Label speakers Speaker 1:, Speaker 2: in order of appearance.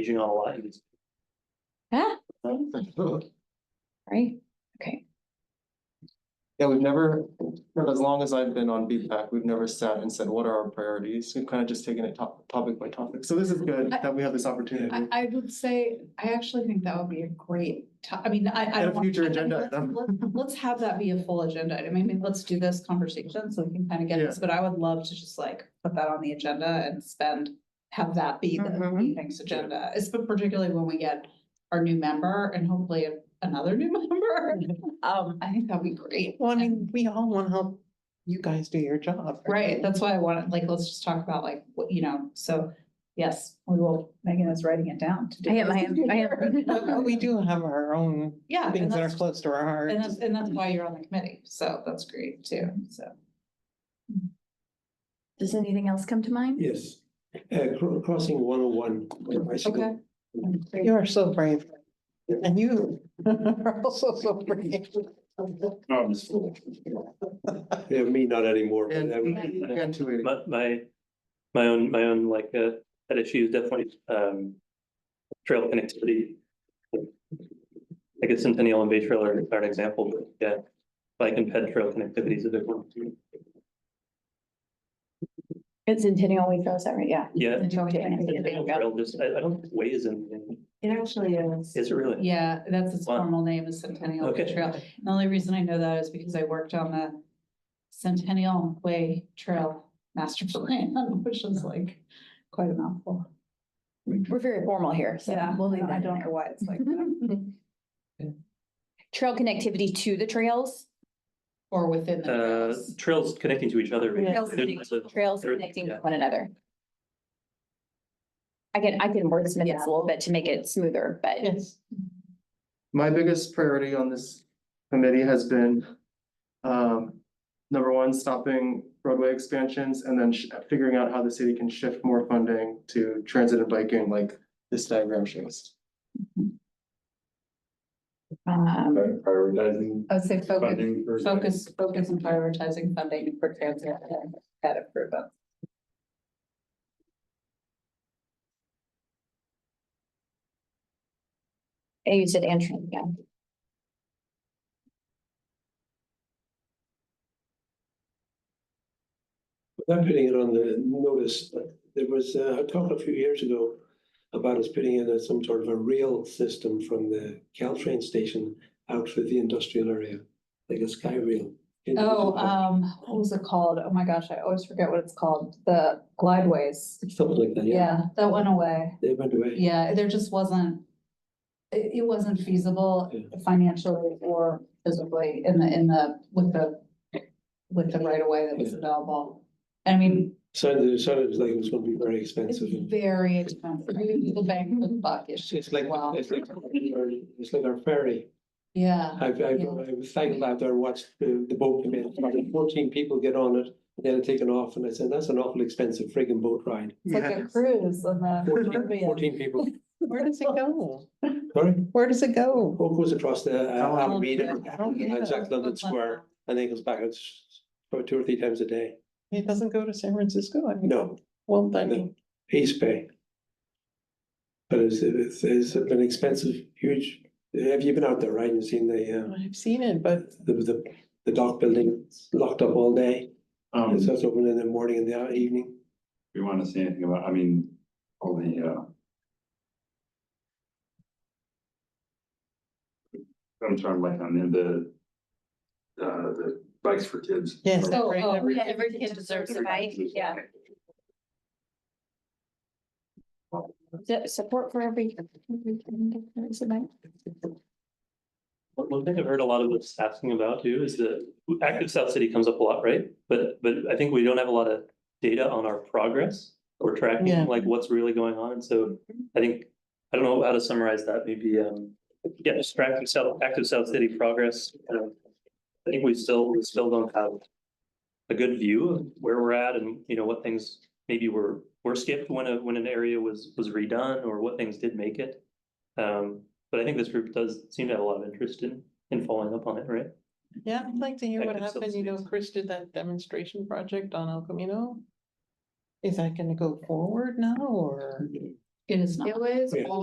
Speaker 1: Aging on a lot. you just-
Speaker 2: Yeah, right, okay.
Speaker 3: Yeah, we've never, for as long as I've been on BPAC, we've never sat and said, what are our priorities? We've kind of just taken it top, topic by topic. So this is good that we have this
Speaker 4: I,
Speaker 3: opportunity.
Speaker 4: I would say, I actually think that would be a great, to- I mean, I, I.
Speaker 3: And a
Speaker 4: don't-
Speaker 3: future
Speaker 4: I mean,
Speaker 3: agenda
Speaker 4: let's-
Speaker 3: item.
Speaker 4: let- Let's have that be a full agenda. item. I mean, let's do this conversation so we can kind of get
Speaker 3: Yeah.
Speaker 4: this, but I would love to just like put that on the agenda and spend, have that be the
Speaker 3: Mm-hmm.
Speaker 2: Mhm.
Speaker 4: evening's agenda, it's but particularly when we get our new member and hopefully another new member. Um, I think that'd be great.
Speaker 3: we all want to help you guys do your job.
Speaker 4: Right, that's why I wanted, like, let's just talk about like, what, you know, so, yes, we will, Megan is writing it down. to do
Speaker 2: I am,
Speaker 4: this.
Speaker 2: I am, I am.
Speaker 5: But we do have our own
Speaker 4: Yeah. and
Speaker 5: things that are
Speaker 4: that's-
Speaker 5: close to our heart.
Speaker 4: And that's, and that's why you're on the committee, so that's great too, so.
Speaker 2: Does anything else come to mind?
Speaker 6: Yes, uh, cro- crossing one oh one.
Speaker 4: Okay.
Speaker 5: You are so brave. And you are also so brave.
Speaker 6: Yeah, me not anymore. but
Speaker 3: And-
Speaker 6: I would-
Speaker 3: And two eighty.
Speaker 1: My, my, my own, my own like, uh, that issue is definitely, um, trail connectivity. I guess Centennial and Bay Trail are, are an example, but yeah, bike and ped trail connectivity is a big one. too.
Speaker 2: It's Centennial we throws that, right? Yeah.
Speaker 1: Yeah. Centennial
Speaker 2: It
Speaker 1: Trail just, I, I don't think Way is in,
Speaker 2: actually is.
Speaker 1: is it really?
Speaker 4: Yeah, that's its
Speaker 1: Wow.
Speaker 4: formal name is Centennial Way
Speaker 1: Okay.
Speaker 4: Trail. The only reason I know that is because I worked on the Centennial Way Trail Master Plan, which is like quite a mouthful.
Speaker 2: We're very formal here, so
Speaker 4: Yeah,
Speaker 2: we'll leave that.
Speaker 4: I
Speaker 2: in
Speaker 4: don't
Speaker 2: there.
Speaker 4: know why it's like that,
Speaker 2: Trail connectivity to the trails,
Speaker 4: or within the
Speaker 1: Uh,
Speaker 4: trails.
Speaker 1: trails connecting to each other. There's
Speaker 2: Trails connecting-
Speaker 1: lots of-
Speaker 2: trails
Speaker 1: there-
Speaker 2: connecting to
Speaker 1: yeah.
Speaker 2: one another. I can, I can wordsmith this a little bit to make it smoother, but
Speaker 5: Yes.
Speaker 3: My biggest priority on this committee has been, um, number one, stopping roadway expansions and then sh- figuring out how the city can shift more funding to transit and biking like this diagram shows.
Speaker 2: um,
Speaker 7: Prioritizing
Speaker 4: I would say focus,
Speaker 7: funding for.
Speaker 4: focus, focus and prioritizing funding for transit and pet improvement.
Speaker 2: and you said entering, yeah.
Speaker 6: Not putting it on the notice, but there was uh, a talk a few years ago about us putting in a- some sort of a rail system from the Caltrain station out through the industrial area, like a sky rail.
Speaker 4: Oh, um, what was it called? Oh my gosh, I always forget what it's called. The glideways.
Speaker 6: Something like that, yeah.
Speaker 4: Yeah, that went away.
Speaker 6: They went away.
Speaker 4: Yeah, there just wasn't. It, it wasn't feasible
Speaker 6: Yeah.
Speaker 4: financially or physically in the, in the, with the, with the right of way that was
Speaker 6: Yeah.
Speaker 4: available. I mean,
Speaker 6: Sounded, it sounded like it was gonna be very
Speaker 4: it's
Speaker 6: expensive.
Speaker 4: very expensive. I mean, The bank with the buck
Speaker 6: It's
Speaker 4: issue.
Speaker 6: it's like,
Speaker 4: Wow.
Speaker 6: it's like, it's like our ferry.
Speaker 4: Yeah,
Speaker 6: I've, I've,
Speaker 4: Yeah.
Speaker 6: I've cycled out there, watched the, the boat come in, about fourteen people get on it, they had it taken off, and I said, that's an awful expensive friggin' boat ride.
Speaker 4: it's like a cruise on the
Speaker 6: Fourteen
Speaker 4: Caribbean.
Speaker 6: 14 people,
Speaker 5: Where does it go?
Speaker 6: sorry,
Speaker 5: Where does it go?
Speaker 6: boat goes across the uh,
Speaker 3: Oh,
Speaker 6: Alameda,
Speaker 5: Oh, yeah.
Speaker 6: and Jack London Square, and then goes back, it's about two or three times a day.
Speaker 5: It doesn't go to San Francisco? I mean,
Speaker 6: No,
Speaker 5: well, I
Speaker 6: No.
Speaker 5: mean,
Speaker 6: East Bay. But it's, it's, it's an expensive, huge, have you been out there, right, and seen the, uh,
Speaker 5: I've seen it, but
Speaker 6: the, the, the dock building locked up all day?
Speaker 7: Um,
Speaker 6: It's
Speaker 7: if
Speaker 6: just open in the morning and the evening.
Speaker 7: you wanna say anything about, I mean, all the, uh. I'm trying to like, on the, the. Uh, the bikes for kids.
Speaker 5: yes.
Speaker 4: So,
Speaker 5: right,
Speaker 4: oh,
Speaker 5: every-
Speaker 2: Yeah, every kid deserves a bike, yeah. Su- Support for every. every kid deserves a bike.
Speaker 1: One one thing I've heard a lot of us asking about too is the active South City comes up a lot, right? But but I think we don't have a lot of data on our progress or
Speaker 5: Yeah.
Speaker 1: tracking, like what's really going on. And so I think, I don't know how to summarize that, maybe um, yeah, just active South, active South City progress. um, I think we still, we still don't have a good view of where we're at and, you know, what things maybe were were skipped when a, when an area was was redone or what things did make it. Um, but I think this group does seem to have a lot of interest in, in following up on it, right?
Speaker 5: Yeah, I'd like to hear
Speaker 1: I
Speaker 5: what
Speaker 1: could still
Speaker 5: happened. You
Speaker 1: see
Speaker 5: know,
Speaker 1: it.
Speaker 5: Chris did that demonstration project on El Camino. Is that gonna go forward now or?
Speaker 8: It is not.
Speaker 9: It was
Speaker 4: Yeah.